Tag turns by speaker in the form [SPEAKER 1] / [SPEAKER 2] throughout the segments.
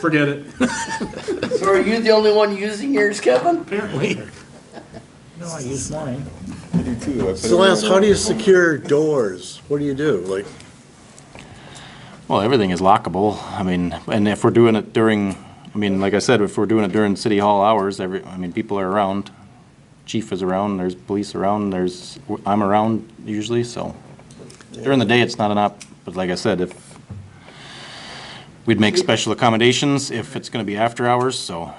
[SPEAKER 1] Forget it.
[SPEAKER 2] So are you the only one using yours, Kevin?
[SPEAKER 1] Apparently.
[SPEAKER 3] No, I use mine.
[SPEAKER 4] I do too. I put it in
[SPEAKER 5] Celeste,
[SPEAKER 4] the-
[SPEAKER 5] how do you secure doors? What do you do? Like,
[SPEAKER 6] Well, everything is lockable. I mean, and if we're doing it during, I mean, like I said, if we're doing it during city hall hours, every, I mean, people are around. Chief is around, there's police around, there's, I'm around usually, so. During the day, it's not an op, but like I said, if, we'd make special accommodations if it's gonna be after hours, so,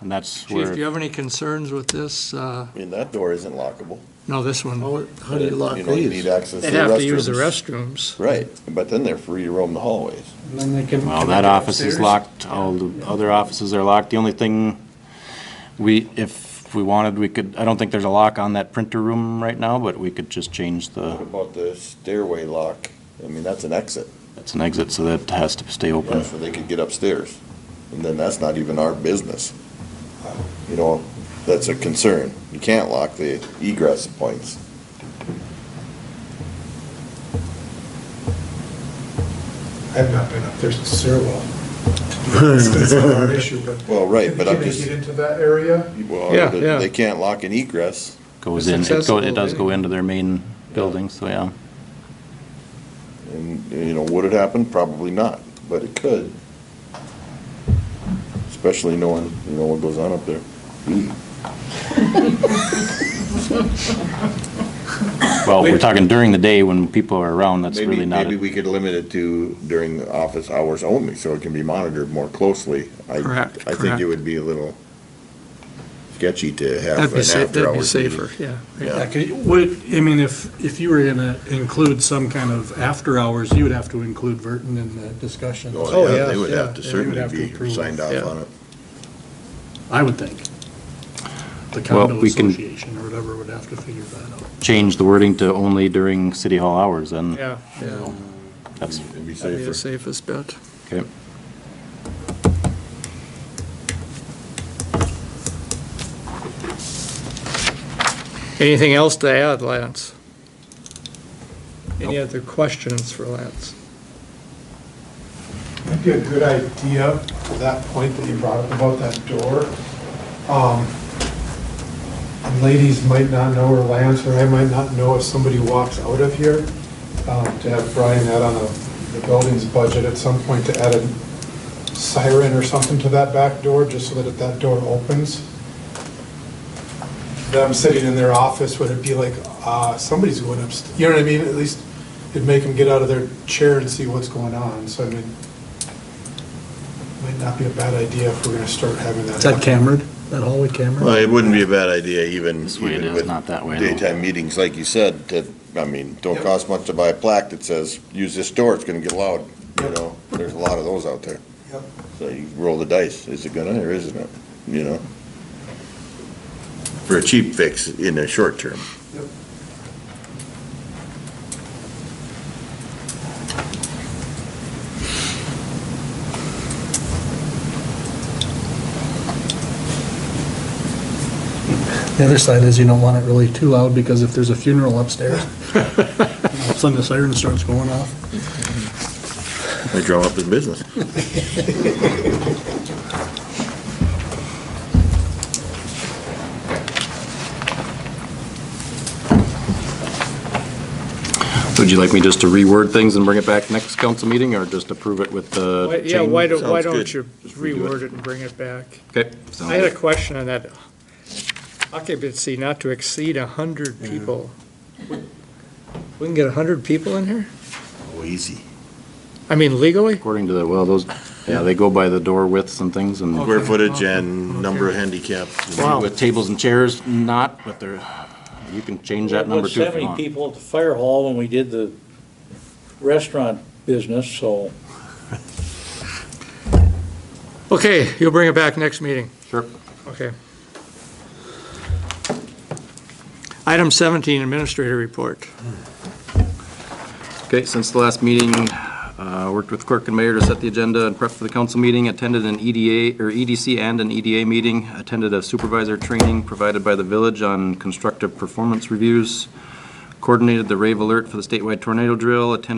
[SPEAKER 6] and that's
[SPEAKER 1] Chief, do you
[SPEAKER 6] where,
[SPEAKER 1] have any concerns with this? Uh,
[SPEAKER 4] I mean, that door isn't lockable.
[SPEAKER 1] No, this one.
[SPEAKER 5] how, how do you lock
[SPEAKER 4] know, you
[SPEAKER 5] these?
[SPEAKER 4] need access to
[SPEAKER 1] They'd
[SPEAKER 4] Oh, the
[SPEAKER 1] have to use the
[SPEAKER 4] restrooms.
[SPEAKER 1] restrooms.
[SPEAKER 4] Right, but then they're free to roam the hallways.
[SPEAKER 6] well, that office is locked, all the other offices are locked. The only thing, we, if we wanted, we could, I don't think there's a lock on that printer room right now, but we could just change the.
[SPEAKER 4] What about the stairway lock? I mean, that's an exit.
[SPEAKER 6] It's an exit, so that has to stay
[SPEAKER 4] Yeah,
[SPEAKER 6] open.
[SPEAKER 4] so they could get upstairs. And then that's not even our business. You know, that's a concern. You can't lock the egress points.
[SPEAKER 7] I've not been up there since Sirwell. It's been our issue, but.
[SPEAKER 4] Well, right, but I'm
[SPEAKER 7] Can they
[SPEAKER 4] just-
[SPEAKER 7] get into that area?
[SPEAKER 1] Yeah,
[SPEAKER 4] Well,
[SPEAKER 1] yeah.
[SPEAKER 4] they they can't lock an egress.
[SPEAKER 6] Goes
[SPEAKER 1] It's
[SPEAKER 6] in, it
[SPEAKER 1] accessible, eh?
[SPEAKER 6] goes, it does go
[SPEAKER 1] yeah.
[SPEAKER 6] into their main building, so yeah.
[SPEAKER 4] And, you know, would it happen? Probably not, but it could. Especially knowing, you know, what goes on up there.
[SPEAKER 6] Well, we're talking during the day when people are around, that's
[SPEAKER 4] Maybe-
[SPEAKER 6] really not,
[SPEAKER 4] Maybe
[SPEAKER 6] it.
[SPEAKER 4] we could limit it to during the office hours only, so it can be monitored more closely. I-
[SPEAKER 1] Correct,
[SPEAKER 4] I think
[SPEAKER 1] correct.
[SPEAKER 4] it would be a little sketchy to have
[SPEAKER 1] That'd
[SPEAKER 4] an
[SPEAKER 1] be safe, that'd be
[SPEAKER 4] after-hours meeting.
[SPEAKER 1] safer, yeah.
[SPEAKER 4] Yeah.
[SPEAKER 8] Yeah, 'cause would, I mean, if, if you were gonna include some kind of after-hours, you would have to include Verton in the discussion,
[SPEAKER 1] Oh,
[SPEAKER 4] Oh, yeah, they
[SPEAKER 1] yeah,
[SPEAKER 4] would
[SPEAKER 1] yeah,
[SPEAKER 4] have to
[SPEAKER 1] they would
[SPEAKER 4] certainly
[SPEAKER 1] have to
[SPEAKER 4] be
[SPEAKER 1] approve,
[SPEAKER 4] signed off
[SPEAKER 1] yeah.
[SPEAKER 4] on it.
[SPEAKER 8] I would think. The
[SPEAKER 6] Well,
[SPEAKER 8] condo
[SPEAKER 6] we can-
[SPEAKER 8] association or whatever would have to figure that out.
[SPEAKER 6] change the wording to only during city hall hours, and
[SPEAKER 1] Yeah, yeah.
[SPEAKER 6] that's,
[SPEAKER 4] It'd be
[SPEAKER 1] That'd be the
[SPEAKER 4] safer.
[SPEAKER 1] safest bet.
[SPEAKER 6] okay.
[SPEAKER 1] Anything else to add, Lance? Any other questions for Lance?
[SPEAKER 7] Might be a good idea for that point that you brought up about that door. Um, and Ladies might not know, or Lance, or I might not know if somebody walks out of here, um, to have Brian add on a- the building's budget at some point to add a siren or something to that back door, just so that if that door opens, them sitting in their office, would it be like, uh, somebody's going upstairs? You know what I mean? At least it'd make them get out of their chair and see what's going on. So I mean, might not be a bad idea if we're gonna start having that.
[SPEAKER 8] Is that cambered, that hallway cambered?
[SPEAKER 4] Well, it wouldn't be a bad idea even,
[SPEAKER 6] This way it
[SPEAKER 4] even
[SPEAKER 6] is,
[SPEAKER 4] with
[SPEAKER 6] not that way. though.
[SPEAKER 4] daytime meetings, like you said, that, I mean, don't cost much to buy a plaque that says, use this door, it's gonna get loud, you know? There's a lot of those out there.
[SPEAKER 7] Yep.
[SPEAKER 4] So you roll the dice, is it gonna or isn't it, you know? For a cheap fix in the short term.
[SPEAKER 8] The other side is you don't want it really too loud, because if there's a funeral upstairs, all of a sudden the siren starts going off.
[SPEAKER 4] They draw up his business.
[SPEAKER 6] Would you like me just to reword things and bring it back next council meeting, or just approve it with the
[SPEAKER 1] Why-
[SPEAKER 6] change?
[SPEAKER 1] Yeah, why don't, why
[SPEAKER 4] Sounds
[SPEAKER 1] don't
[SPEAKER 4] good.
[SPEAKER 1] you
[SPEAKER 4] Just redo it.
[SPEAKER 1] reword it and bring it back?
[SPEAKER 6] Okay.
[SPEAKER 1] I had a question on that occupancy not to exceed 100 people. We can get 100 people in here?
[SPEAKER 4] Oh, easy.
[SPEAKER 1] I mean legally?
[SPEAKER 6] According to the, well, those, yeah, they go by the door widths and things, and
[SPEAKER 4] Square footage and number of handicap.
[SPEAKER 6] with tables and chairs, not, but they're, you can change that number too if you
[SPEAKER 3] Seventy
[SPEAKER 6] want.
[SPEAKER 3] people at the fire hall when we did the restaurant business, so.
[SPEAKER 1] Okay, you'll bring it back next meeting.
[SPEAKER 6] Sure.
[SPEAKER 1] Okay. Item 17, Administrator Report.
[SPEAKER 6] Okay, since the last meeting, uh, worked with clerk and mayor to set the agenda and prep for the council meeting, attended an EDA, or EDC and an EDA meeting, attended a supervisor training provided by the village on constructive performance reviews, coordinated the rave alert for the statewide tornado drill, attended